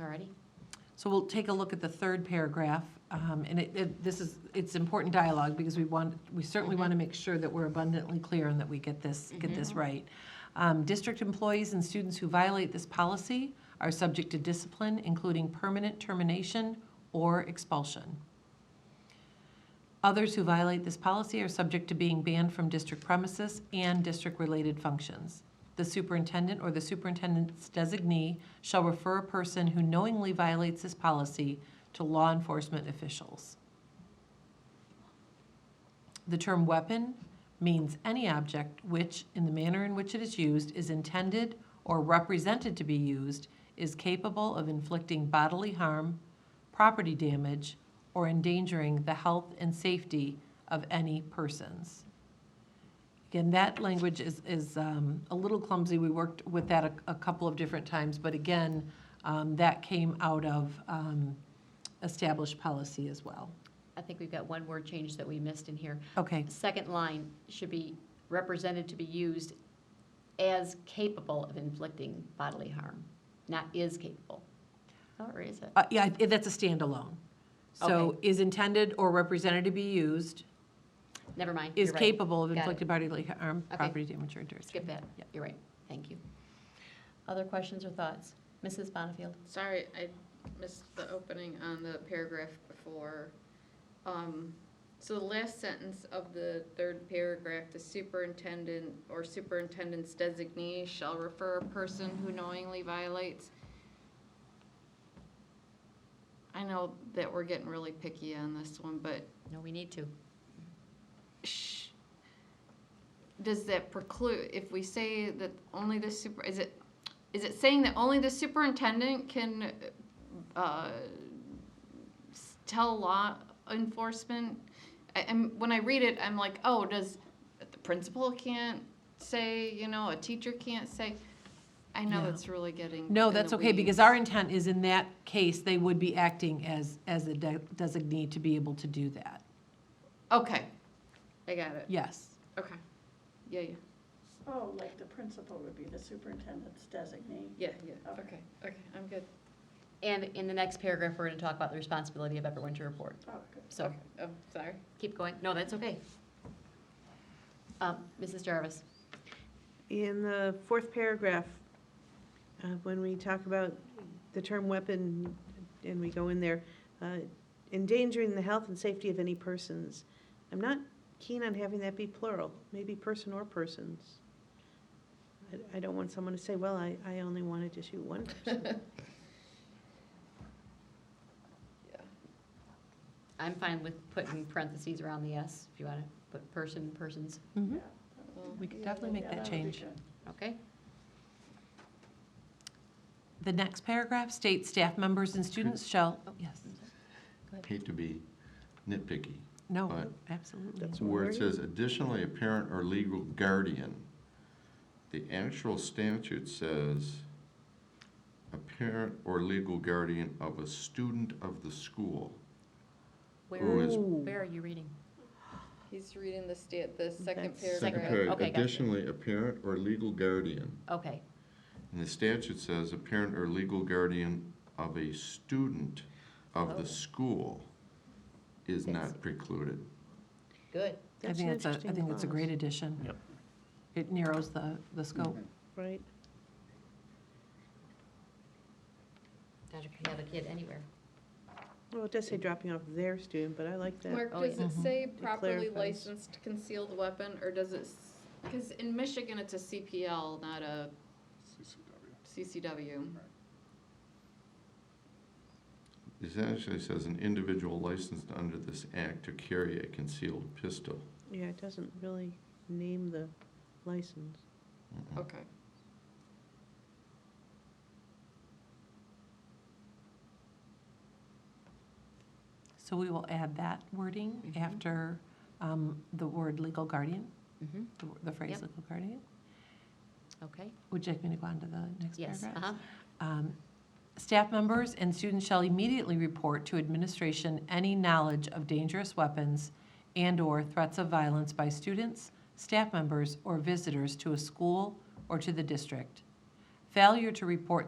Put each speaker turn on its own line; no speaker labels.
Alrighty.
So we'll take a look at the third paragraph, um, and it- it, this is, it's important dialogue, because we want, we certainly want to make sure that we're abundantly clear and that we get this, get this right. Um, District employees and students who violate this policy are subject to discipline, including permanent termination or expulsion. Others who violate this policy are subject to being banned from district premises and district-related functions. The superintendent or the superintendent's designee shall refer a person who knowingly violates this policy to law enforcement officials. The term weapon means any object which, in the manner in which it is used, is intended or represented to be used, is capable of inflicting bodily harm, property damage, or endangering the health and safety of any persons. Again, that language is, is um, a little clumsy. We worked with that a, a couple of different times, but again, um, that came out of um, established policy as well.
I think we've got one word change that we missed in here.
Okay,
Second line should be represented to be used as capable of inflicting bodily harm, not is capable. Or is it?
Uh, Yeah, I- that's a standalone. So is intended or represented to be used,
Never mind.
is
you're right.
capable of
Got it.
inflicted bodily harm,
Okay.
property damage, or injury.
Skip that.
Yep.
You're right. Thank you. Other questions or thoughts? Mrs. Bonnefield?
Sorry, I missed the opening on the paragraph before. Um, so the last sentence of the third paragraph, the superintendent or superintendent's designee shall refer a person who knowingly violates. I know that we're getting really picky on this one, but
No, we need to.
sh- does that preclude, if we say that only the super, is it, is it saying that only the superintendent can, uh, s- tell law enforcement? I, and when I read it, I'm like, oh, does, the principal can't say, you know, a teacher can't say? I know
No.
it's really getting.
No,
in the
that's okay, because
weeds.
our intent is in that case, they would be acting as, as a de- designee to be able to do that.
Okay, I got it,
Yes.
okay, yeah, yeah,
Oh, like the principal would be the superintendent's designee.
yeah, yeah,
Okay.
okay, okay, I'm good,
And in the next paragraph, we're going to talk about the responsibility of everyone to report.
Oh, good.
So
oh, sorry.
keep going. No, that's okay. Um, Mrs. Jarvis?
In the fourth paragraph, uh, when we talk about the term weapon, and we go in there, uh, endangering the health and safety of any persons, I'm not keen on having that be plural, maybe person or persons. I- I don't want someone to say, well, I, I only wanted to shoot one person.
I'm fine with putting parentheses around the S, if you want to put person, persons,
Mhm.
Well,
We could
Yeah,
definitely make
yeah,
that
would be
change.
good.
okay?
The next paragraph states staff members and students shall,
Oh.
yes,
hate to be nitpicky,
no,
Right.
absolutely.
That's-
where it says additionally, a parent or legal guardian. The actual statute says, a parent or legal guardian of a student of the school. Who
Where,
is-
where are you reading?
He's reading the state, the second
Second
That's-
paragraph.
paragraph,
okay, gotcha.
additionally, a parent or legal guardian.
Okay,
And the statute says, a parent or legal guardian of a student of
Oh.
the school is
That's-
not precluded.
good.
I
That's an
think it's a, I
interesting
think it's a
clause,
great addition.
Yep.
It narrows the, the scope.
Right,
Now you can have a kid anywhere.
well, it does say dropping off their student, but I like that.
Mark,
Oh,
does
yeah.
it
Mhm.
say properly
clarifies.
licensed concealed weapon, or does it, because in Michigan, it's a CPL, not a CCW.
It actually says an individual licensed under this act to carry a concealed pistol.
Yeah, it doesn't really name the license.
Mm-mm.
Okay.
So we will add that wording
Mhm.
after um, the word legal guardian,
Mm-hmm.
the wo- the phrase
Yep.
legal guardian.
Okay,
Would you like me to go on to the next
yes,
paragraph?
uh-huh,
Um, Staff members and students shall immediately report to administration any knowledge of dangerous weapons and/or threats of violence by students, staff members, or visitors to a school or to the district. Failure to report